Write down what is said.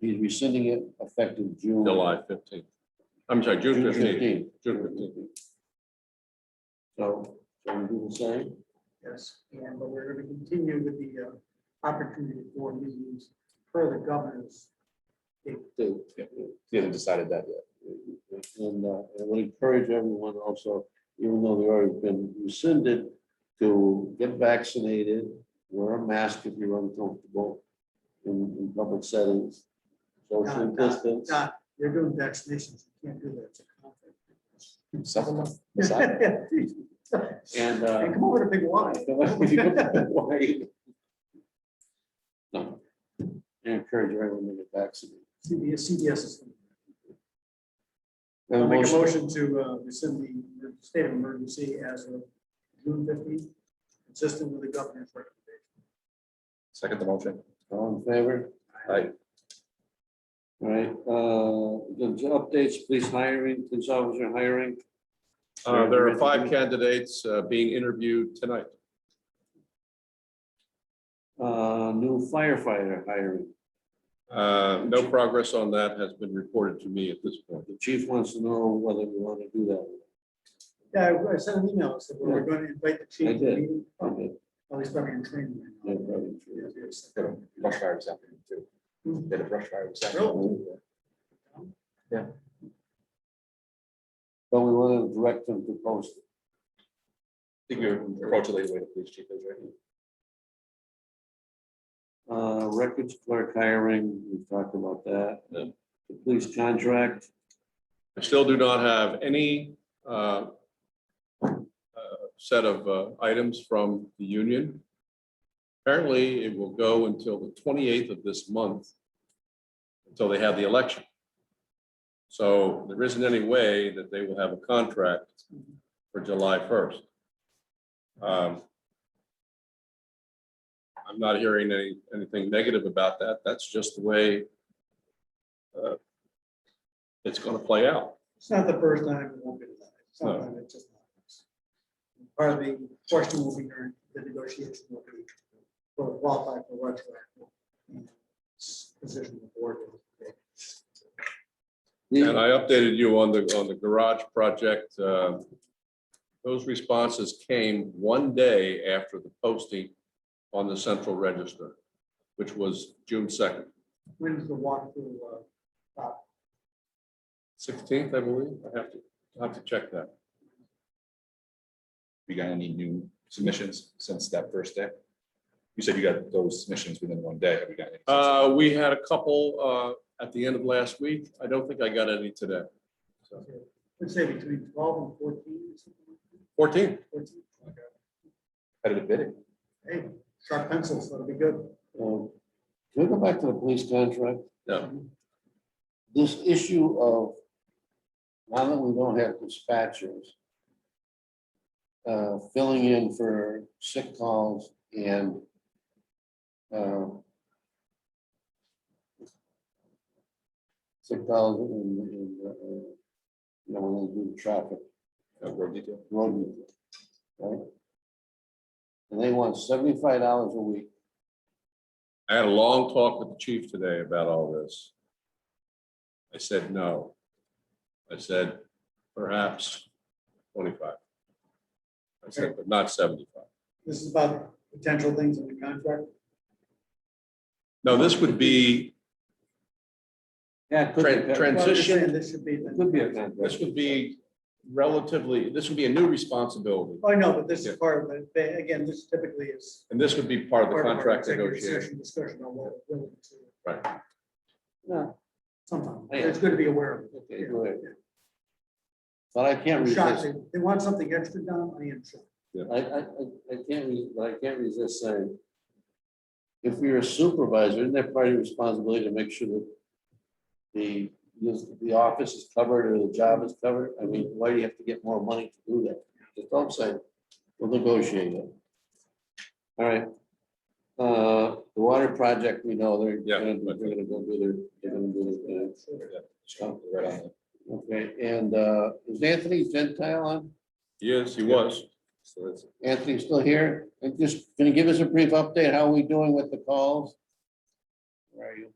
He's rescinding it effective June. July fifteenth. I'm sorry, June June fifteenth. 15. June fifteenth. So, so we do the same? Yes, and but we're gonna continue with the uh, opportunity for meetings per the governor's. They They haven't decided that yet. And uh, I would encourage everyone also, even though they've already been rescinded, to get vaccinated, wear a mask if you're uncomfortable in, in public settings, social Not- not- distance. Not, uh, they're doing vaccinations, you can't do that. It's a Seven months. Decide. conflict. And. Hey, uh, come over to Big Y. Why? No. I Encourage everyone to get vaccinated. CBS, CBS is. Have a I'll make a motion? motion to uh, rescind the the state of emergency as of June fifteenth, consistent with the governor's recommendation. Second the motion. All in favor? Aye. All right, uh, the j- updates, police hiring, police officer hiring. Uh, there are five candidates uh, being interviewed tonight. Uh, new firefighter hiring. Uh, no progress on that has been reported to me at this point. The chief wants to know whether we want to do that. Yeah, I- I sent an email, so we're going to invite the chief. I to did. meeting. Oh, Okay, At least I'm in training. yeah, right now. probably true. Yes, Did a brush fire this afternoon too. Did a brush fire this afternoon. But we want to direct them to post. it. I think you're approaching the way the police chief is, right? Uh, records clerk hiring, we've talked about that. Yeah. The police contract, I still do not have any uh, uh, set of uh, items from the union. Apparently, it will go until the 28th of this month, until they have the election. So there isn't any way that they will have a contract for July 1st. Um, I'm not hearing any, anything negative about that. That's just the way uh, it's going to play out. It's not the first time it won't be. the last. Sometimes it just happens. Part of the question will be during the negotiation will be for qualified for retroactive. and Position of the board. And I updated you on the, on the garage project. uh, Those responses came one day after the posting on the central register, which was June second, When is the walkthrough? uh, stop? sixteenth, I believe. I have to, I have to check that. You got any new submissions since that first day? You said you got those submissions within one day. Have you got any? since Uh, then? We had a couple uh, at the end of last week. I don't think I got any today. Let's say between twelve and fourteen. or something like Fourteen, that. 14? Competitive bidding. Hey, sharp pencils, that'll be good. um, can we go back to the police contract? no, this issue of, now that we don't have dispatchers, uh, filling in for sick calls and uh, sick calls and, and, uh, you know, when they do traffic, uh, Road detail. road meeting, right? And they want seventy-five dollars a week, I had a long talk with the chief today about all this. I said, no. I said, perhaps twenty-five. I said, but not seventy-five. This is about potential things in the contract. No, this would be, yeah, it could be- Tran- trans- Well, I'm just Transition- saying This should be. it could be a contract. this would be relatively, this would be a new responsibility. I know, oh, but this Yeah. is part of it. They- Again, this typically is And this would be part of the part of our contract executive negotiation. session Discussion on what we're willing to, Right. Yeah, sometimes, Yeah. it's good to be aware of. okay, go ahead. But I can't I'm resist. shocked, they, they want something extra done, I am shocked. I, I, I- I can't, re- but I can't resist saying, if you're a supervisor, isn't that part of your responsibility to make sure that the, the office is covered or the job is covered? I mean, why do you have to get more money to do that? Just don't say, we'll negotiate it. All right. Uh, The water project, we know, they're Yeah. gonna, they're gonna go do their, they're gonna do their thing. Right on. Okay, and uh, is Anthony Gentile on? Yes, he was. So that's Anthony, still here? And just, can you give us a brief update? How are we doing with the calls? Where are you?